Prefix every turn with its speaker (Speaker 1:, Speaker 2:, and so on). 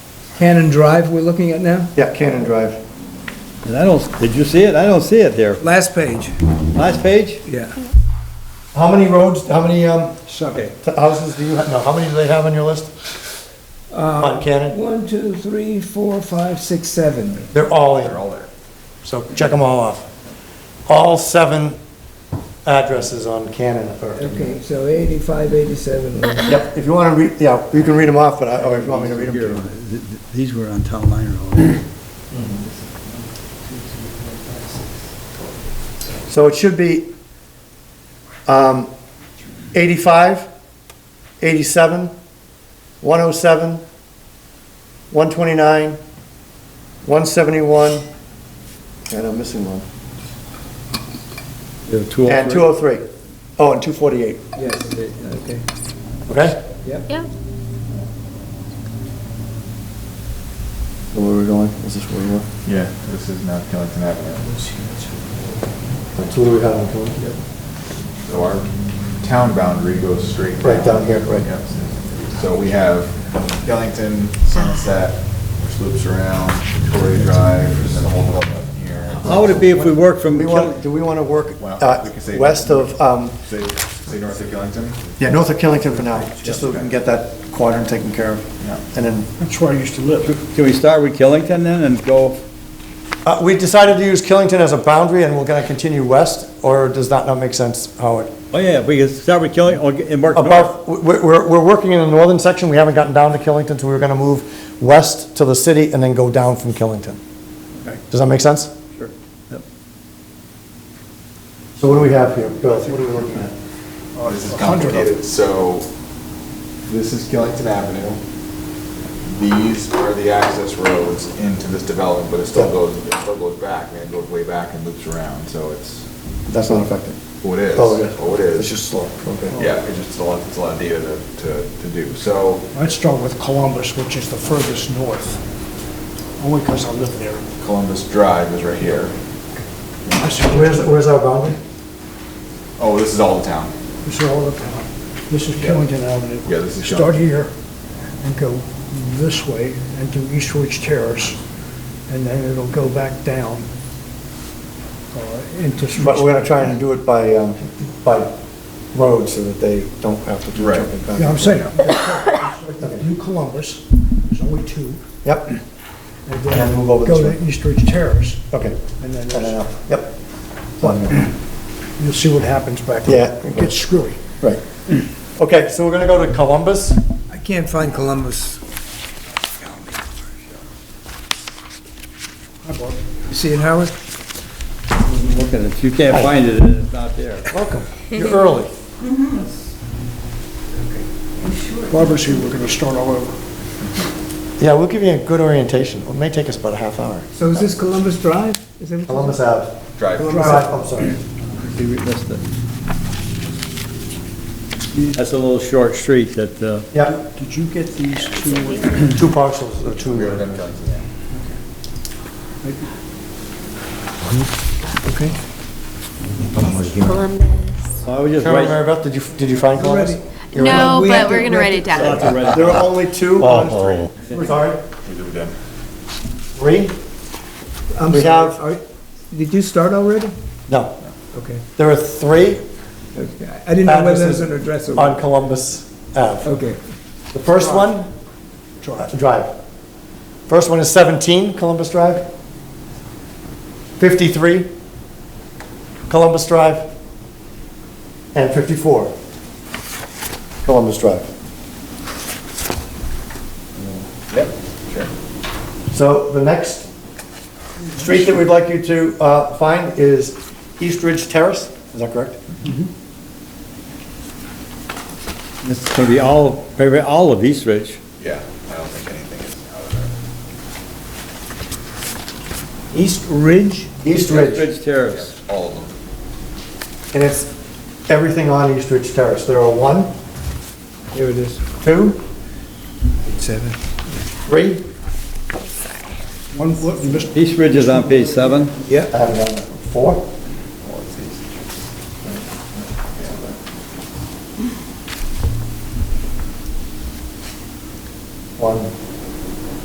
Speaker 1: Cannon Drive we're looking at now?
Speaker 2: Yeah, Cannon Drive.
Speaker 3: And I don't, did you see it? I don't see it here.
Speaker 1: Last page,
Speaker 3: Last page?
Speaker 1: yeah.
Speaker 2: How many roads, how many, um,
Speaker 3: Seven.
Speaker 2: t- houses do you, have? no, how many do they have on your list? On Cannon?
Speaker 1: One, two, three, four, five, six, seven.
Speaker 2: They're all in. They're all there. So check them all off. All seven addresses on Cannon. are-
Speaker 1: Okay, so 85, 87.
Speaker 2: Yep, if you wanna read, yeah, you can read them off, but I, or if you want me to read them to you.
Speaker 3: These were on Town Line Road.
Speaker 2: So it should be, um, 85, 87, 107, 129, 171, and I'm missing one,
Speaker 3: There were two.
Speaker 2: and 203. Oh, and 248.
Speaker 1: Yes, okay,
Speaker 2: Okay?
Speaker 1: yep.
Speaker 4: Yeah,
Speaker 2: Where were we going? Is this where we were?
Speaker 5: Yeah, this is not Killington Avenue.
Speaker 2: That's where we had them going.
Speaker 5: So our town boundary goes straight down.
Speaker 2: Right down here, right.
Speaker 5: Yep. So we have Killington, Sunset, which loops around, Victoria Drive, and then a whole lot up here.
Speaker 3: How would it be if we worked
Speaker 2: Do
Speaker 3: from,
Speaker 2: we
Speaker 3: Kill-
Speaker 2: want, do we want to work
Speaker 5: Well,
Speaker 2: uh,
Speaker 5: we can say-
Speaker 2: west of, um,
Speaker 5: Say, say north of Killington?
Speaker 2: yeah, north of Killington for now, just so we can get that quadrant taken care of?
Speaker 5: Yeah.
Speaker 2: And then
Speaker 6: That's where I used to live.
Speaker 3: can we start with Killington then and go,
Speaker 2: Uh, We decided to use Killington as a boundary, and we're going to continue west, or does that not make sense, Howard?
Speaker 3: oh yeah, we could start with Killington and work north.
Speaker 2: Above, we're, we're- we're working in the northern section, we haven't gotten down to Killington, so we're going to move west to the city and then go down from Killington. Does that make sense?
Speaker 3: Sure. Yep.
Speaker 2: So what do we have here, Bill? What are we working at?
Speaker 5: Oh, this is complicated. So this is Killington Avenue. These are the access roads into this development, but it still goes, it still goes back, and it goes way back and loops around, so it's,
Speaker 2: That's not affected.
Speaker 5: oh, it is.
Speaker 2: Oh, okay.
Speaker 5: Oh, it is.
Speaker 2: It's just slow, okay.
Speaker 5: Yeah, it's just a lot, it's a lot of data to, to, to do, so.
Speaker 6: I'd start with Columbus, which is the furthest north, only because I live there.
Speaker 5: Columbus Drive is right here.
Speaker 6: I
Speaker 2: Where's,
Speaker 6: suggest,
Speaker 2: where's our boundary?
Speaker 5: Oh, this is all the town.
Speaker 6: this is all the town. This is Killington Avenue.
Speaker 5: Yeah, this is
Speaker 6: Start
Speaker 5: Killington.
Speaker 6: here and go this way and do East Ridge Terrace, and then it'll go back down uh, into.
Speaker 2: But we're going to try and do it by, um, by road, so that they don't have to do
Speaker 5: Right.
Speaker 2: jumping back.
Speaker 6: Yeah, I'm saying, do Columbus, there's only two,
Speaker 2: Yep,
Speaker 6: and
Speaker 2: And then
Speaker 6: then
Speaker 2: move over
Speaker 6: go
Speaker 2: this
Speaker 6: to East Ridge Terrace,
Speaker 2: okay.
Speaker 6: and then
Speaker 2: And then
Speaker 6: there's-
Speaker 2: up. Yep. One.
Speaker 6: you'll see what happens back
Speaker 2: Yeah.
Speaker 6: there. It gets screwy.
Speaker 2: Right. Okay, so we're gonna go to Columbus.
Speaker 1: I can't find Columbus.
Speaker 6: Hi, Bob.
Speaker 1: You see it, Howard?
Speaker 3: Look at it, if you can't find it, it's not there.
Speaker 2: Welcome. You're early.
Speaker 6: Barbara's here, we're going to start all over.
Speaker 2: Yeah, we'll give you a good orientation. It may take us about a half hour.
Speaker 1: So is this Columbus Drive? Is that what-
Speaker 2: Columbus Ave.
Speaker 5: Drive.
Speaker 2: Columbus Ave, I'm sorry.
Speaker 3: See, we missed it. That's a little short street that, uh,
Speaker 2: Yeah,
Speaker 6: Did you get these two?
Speaker 2: two parcels, or two.
Speaker 5: We are in Killington, yeah.
Speaker 1: Okay.
Speaker 4: Columbus.
Speaker 3: I would
Speaker 2: Chairman
Speaker 3: just write.
Speaker 2: Mary Beth, did you, did you find Columbus?
Speaker 1: Already.
Speaker 2: You're
Speaker 4: No,
Speaker 1: We have
Speaker 4: but
Speaker 1: to
Speaker 4: we're gonna write it
Speaker 3: I'll have
Speaker 4: down.
Speaker 3: to write it
Speaker 2: There
Speaker 3: down.
Speaker 2: are only two on three. We're Oh. sorry?
Speaker 5: We do it again.
Speaker 2: Three?
Speaker 1: I'm
Speaker 2: We
Speaker 1: sorry,
Speaker 2: have-
Speaker 1: are- did you start already?
Speaker 2: No,
Speaker 1: Okay.
Speaker 2: there are three
Speaker 1: Okay. I didn't know whether there was
Speaker 2: Addresses
Speaker 1: an address or.
Speaker 2: on Columbus Ave.
Speaker 1: Okay.
Speaker 2: The first one? Drive. Drive. First one is 17 Columbus Drive. 53 Columbus Drive. And 54 Columbus Drive.
Speaker 5: Yep, sure.
Speaker 2: So the next street that we'd like you to uh, find is East Ridge Terrace, is that correct?
Speaker 3: It's gonna be all, maybe all of East Ridge.
Speaker 5: Yeah, I don't think anything is out of
Speaker 1: East Ridge?
Speaker 2: East Ridge,
Speaker 3: Ridge Terrace.
Speaker 5: there. All of them.
Speaker 2: and it's everything on East Ridge Terrace. There are one,
Speaker 1: Here it is.
Speaker 2: two,
Speaker 1: Seven.
Speaker 2: three,
Speaker 6: One, look, you missed
Speaker 3: East Ridge is on page seven.
Speaker 2: I haven't done that, four,